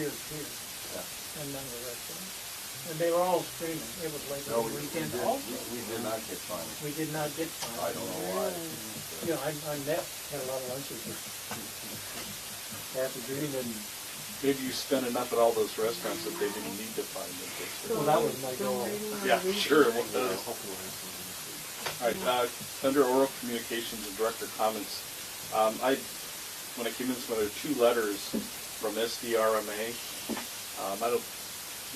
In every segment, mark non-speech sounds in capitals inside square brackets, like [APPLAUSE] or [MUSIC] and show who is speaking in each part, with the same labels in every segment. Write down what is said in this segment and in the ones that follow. Speaker 1: years here, and none of the rest of them. And they were all screaming, it was late
Speaker 2: No,
Speaker 1: on the
Speaker 2: we we
Speaker 1: weekend
Speaker 2: did, we
Speaker 1: also.
Speaker 2: we did not get fined.
Speaker 1: We did not get fined.
Speaker 2: I don't know why.
Speaker 1: You know, I, I met, had a lot of lunches with Arthur Green and,
Speaker 3: Maybe you spent enough at all those restaurants that they didn't need to find the
Speaker 1: well,
Speaker 3: district.
Speaker 1: that was my goal.
Speaker 3: Yeah, sure it was. All right, uh, under oral communications and director comments, um, I, when I came in this morning, there were two letters from SDRMA. Um, I don't,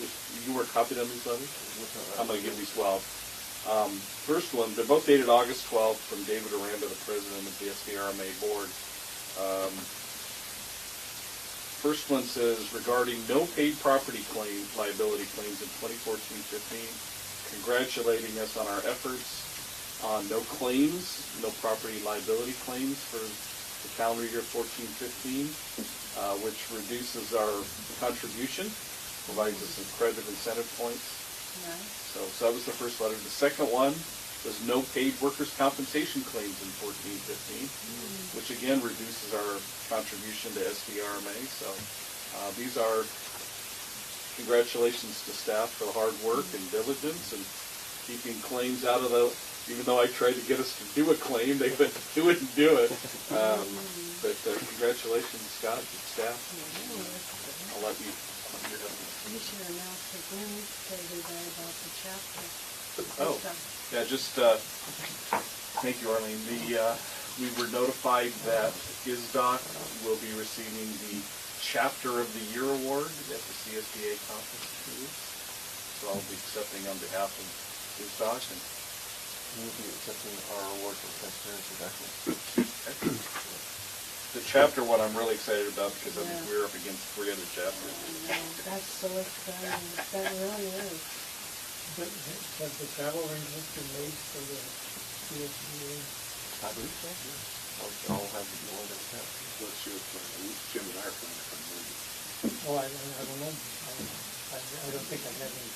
Speaker 3: if you were copied on these letters? I'm gonna give these twelve. Um, first one, they're both dated August twelfth from David Aranda, the president of the SDRMA board. Um, First one says regarding no paid property claim, liability claims in 2014-15, congratulating us on our efforts on Uh, no claims, no property liability claims for the calendar year 14-15, uh, which reduces our contribution, provides us some credit incentive points. So, so that was the first letter. The second one was no paid workers' compensation claims in fourteen fifteen, which again reduces our contribution to SDRMA. So, uh, these are congratulations to staff for the hard work and diligence and keeping claims out of the, even though I tried to get us to do a claim, they wouldn't, they wouldn't do it. Um, but uh, congratulations, Scott, and staff. I'll let you,
Speaker 4: You should announce the wins to everybody about the chapter.
Speaker 3: Oh, yeah, just, uh, thank you, Arlene. The, uh, we were notified that ISDOC will be receiving the Chapter of the Year Award at the CSBA conference. in two weeks. So I'll be accepting on behalf of ISDOC and
Speaker 5: We'll be accepting our award for transparency documents.
Speaker 3: the chapter one I'm really excited about because I think
Speaker 4: Yeah.
Speaker 3: we're up against three other chapters.
Speaker 4: That's so exciting, that really is.
Speaker 1: But Has the travel arrangements been made for the USDA?
Speaker 5: I believe so, yeah. I'll, I'll have the award at that.
Speaker 6: What's your plan? We- Jim and I are planning for a movie.
Speaker 1: Oh, I, I don't know. I, I don't think I have any.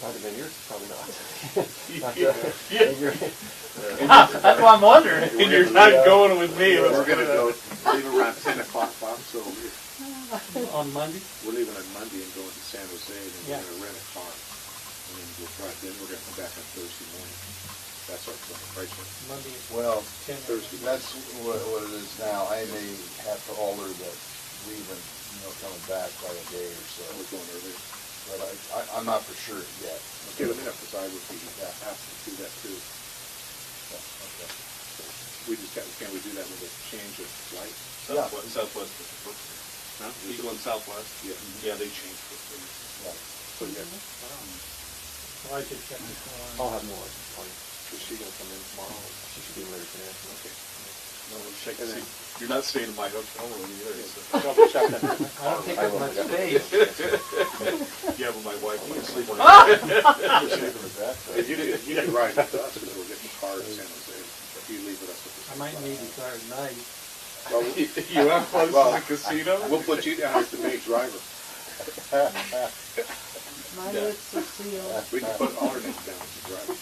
Speaker 5: Probably been yours, probably [LAUGHS] not.
Speaker 3: [LAUGHS]
Speaker 1: That's why I'm wondering.
Speaker 6: And you're
Speaker 3: not going with me.
Speaker 6: We're gonna go, leave around ten o'clock, Bob, so we're,
Speaker 1: On Monday?
Speaker 6: we're leaving on Monday and going to San Jose, and then
Speaker 1: Yeah.
Speaker 6: we're gonna rent a car. And then we'll drive, then we're gonna come back on Thursday morning. That's our plan, right, Jim?
Speaker 1: Monday is
Speaker 2: Well,
Speaker 1: ten.
Speaker 6: Thursday.
Speaker 2: that's what, what it is now. I may have to alter that leaving, you know, coming back by a day or so.
Speaker 6: We're going early.
Speaker 2: But I, I, I'm not for sure yet.
Speaker 6: Okay, let me know, because I would be happy to do that too. We just got, can we do that with a change of flight?
Speaker 2: Yeah.
Speaker 3: Southwest, Southwest,
Speaker 6: Huh?
Speaker 3: Eagle and Southwest. Mm-hmm.
Speaker 6: Yeah.
Speaker 3: Yeah, they changed it.
Speaker 6: So, yeah,
Speaker 1: Well, I could check this
Speaker 5: I'll
Speaker 1: one.
Speaker 5: have more for you. Is she gonna come in tomorrow? She should be ready for that. Okay.
Speaker 3: No, we'll check and see. You're not staying in my hotel room either, so.
Speaker 6: [LAUGHS] double check that.
Speaker 1: I don't think I'm much space.
Speaker 3: Yeah, but my wife wants
Speaker 6: [LAUGHS]
Speaker 3: to sleep on
Speaker 6: Ah! If you didn't, you didn't ride with us, because we're getting a car in San Jose, if you leave with us. at the
Speaker 1: I might need a car at night.
Speaker 6: Well, we-
Speaker 3: You have close
Speaker 6: Well,
Speaker 3: to the casino?
Speaker 6: We'll put you down as the main driver.
Speaker 1: Oh,
Speaker 4: My
Speaker 3: Yeah.
Speaker 4: lips are sealed.
Speaker 6: We can put all our names down as the drivers.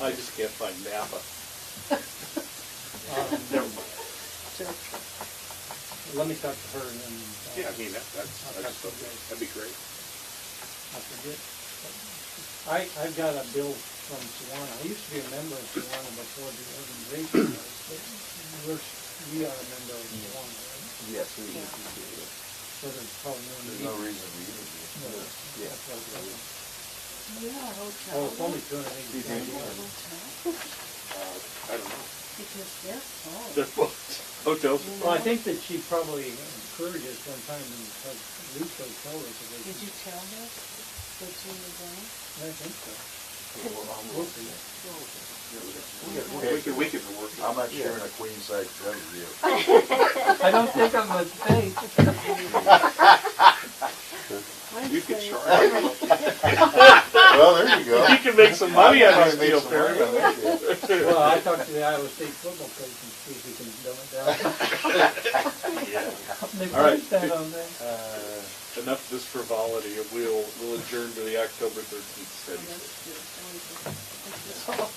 Speaker 3: I just can't find Napa.
Speaker 1: Um,
Speaker 3: Never mind.
Speaker 1: Let me talk to her and then
Speaker 6: Yeah,
Speaker 1: uh,
Speaker 6: I mean, that, that's, I just thought that- that'd be great.
Speaker 1: I forget. I, I've got a bill from Swan. I used to be a member of Swan before the organization was, but we're, we are a member of Swan, right?
Speaker 5: Yes, we, we,
Speaker 4: Yeah.
Speaker 5: we, we-
Speaker 1: So there's probably no
Speaker 2: There's
Speaker 1: need.
Speaker 2: no reason for you to be.
Speaker 5: yeah.
Speaker 1: That's what I'm saying.
Speaker 4: You got a hotel.
Speaker 1: Oh, it's only two hundred and eighty.
Speaker 4: You got a
Speaker 1: bucks.
Speaker 4: hotel?
Speaker 6: Uh, I don't know.
Speaker 4: Because they're full.
Speaker 3: They're both hotels.
Speaker 1: Well, I think that she probably encouraged us one time to have loose hotel
Speaker 4: Did you
Speaker 1: reservations.
Speaker 4: tell her that you were going?
Speaker 1: I think so.
Speaker 5: Yeah, well, I'm working it.
Speaker 6: We can, we can work.
Speaker 2: I'm not sharing a queen size bed with you.
Speaker 1: I don't think I'm a fake.
Speaker 6: You can charge.
Speaker 2: [LAUGHS] Well, there you go.
Speaker 3: You can make some money on this
Speaker 2: Make
Speaker 3: deal,
Speaker 2: some
Speaker 3: Perry.
Speaker 2: money on that deal.
Speaker 1: Well, I talked to the Iowa State football coach and see if we can dumb it down. They
Speaker 3: All right.
Speaker 1: put that on there.
Speaker 2: Uh,
Speaker 3: Enough this frivolity. We'll, we'll adjourn to the October
Speaker 4: Oh,
Speaker 3: 13th study.
Speaker 4: that's good. That was good. That's good.